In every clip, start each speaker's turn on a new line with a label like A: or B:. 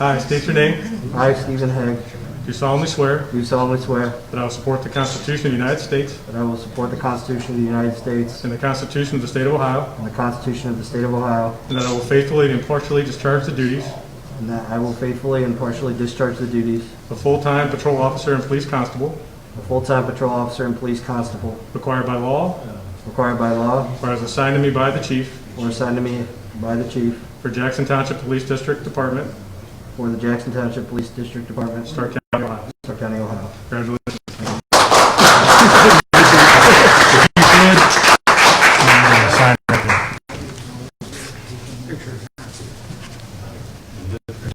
A: I state your name.
B: I, Stephen Hague,
A: Do solemnly swear
B: do solemnly swear
A: that I will support the Constitution of the United States
B: that I will support the Constitution of the United States
A: and the Constitution of the State of Ohio,
B: and the Constitution of the State of Ohio,
A: and that I will faithfully and impartially discharge the duties
B: and that I will faithfully and impartially discharge the duties
A: of full-time patrol officer and police constable
B: of full-time patrol officer and police constable
A: required by law
B: required by law
A: or as assigned to me by the chief
B: or assigned to me by the chief
A: for Jackson Township Police District Department,
B: for the Jackson Township Police District Department, Stark
A: Stark County, Ohio.
B: County, Ohio.
A: Congratulations.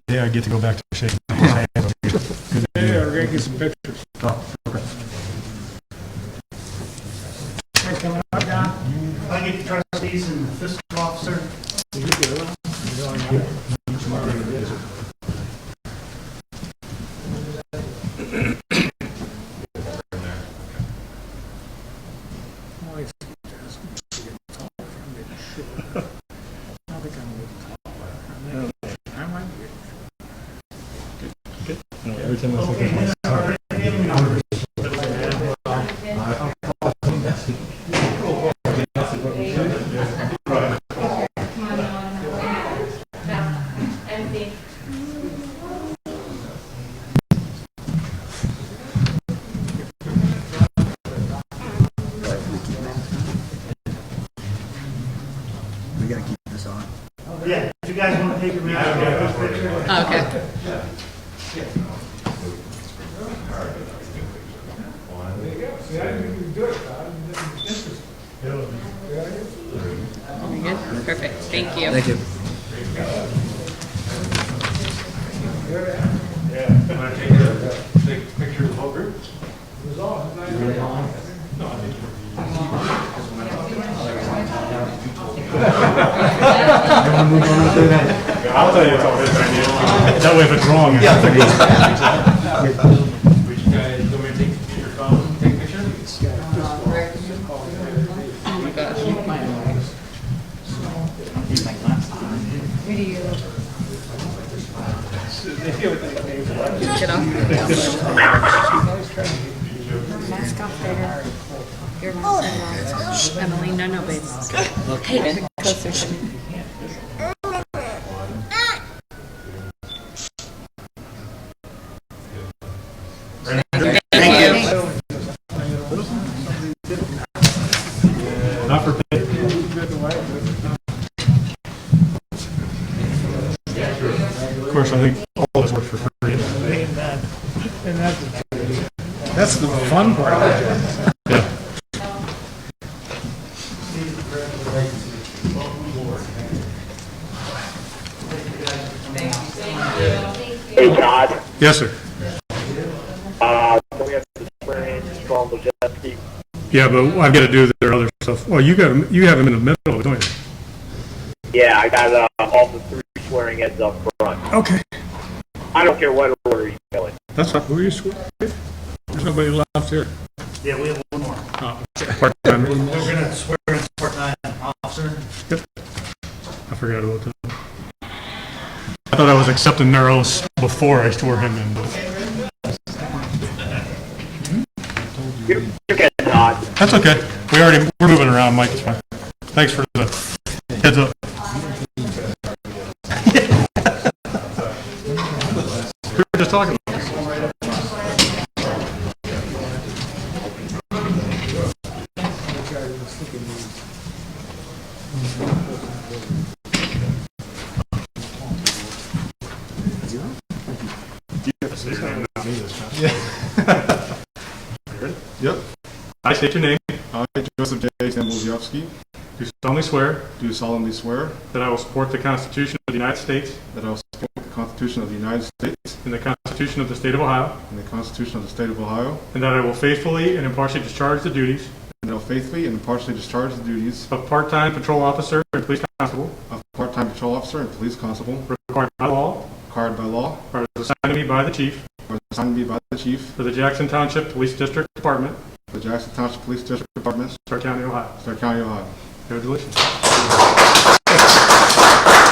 A: Yeah, I get to go back to shaking hands.
C: Yeah, we're gonna get some pictures. Hey, coming up, Don?
D: I get the trustees and the fiscal officer.
A: Every time I think of
E: Empty.
B: We gotta keep this on.
D: Yeah, if you guys want to take a minute.
F: Okay. Very good. Perfect. Thank you.
B: Thank you.
A: I'll tell you it's all his idea. That way if it's wrong.
F: Oh my gosh. Get off.
G: Mask off there. Your mask off. Shh, Emily, no, no, babe. Hey, closer to me.
F: Thank you.
A: Not for pay. Of course, I think all of us work for free.
C: That's the fun part of the job.
H: Hey, Todd.
A: Yes, sir.
H: Uh, we have to swear in Strong Majeski.
A: Yeah, but I've got to do their other stuff. Well, you got, you have them in the middle, don't you?
H: Yeah, I got uh, all the three swearing heads up front.
A: Okay.
H: I don't care what order you go in.
A: That's not, who you swear? There's nobody left here. Oh,
D: Yeah, we have one more.
A: Part-time.
D: We're gonna swear in part-time officer.
A: I forgot about that. I thought I was accepting their oaths before I swore him in, but
H: You're, you're good, Todd.
A: that's okay. We already, we're moving around, Mike, it's fine. Thanks for the heads up. We were just talking. about this.
I: Yep.
A: I state your name,
I: I, Joseph J. Zambuziowski,
A: do solemnly swear
I: do solemnly swear
A: that I will support the Constitution of the United States
I: that I will support the Constitution of the United States
A: and the Constitution of the State of Ohio,
I: and the Constitution of the State of Ohio,
A: and that I will faithfully and impartially discharge the duties
I: and that I will faithfully and impartially discharge the duties
A: of part-time patrol officer and police constable
I: of part-time patrol officer and police constable
A: required by law
I: required by law
A: or as assigned to me by the chief
I: or assigned to me by the chief
A: for the Jackson Township Police District Department,
I: of the Jackson Township Police District Department,
A: Stark County, Ohio.
I: Stark County, Ohio.
A: Congratulations.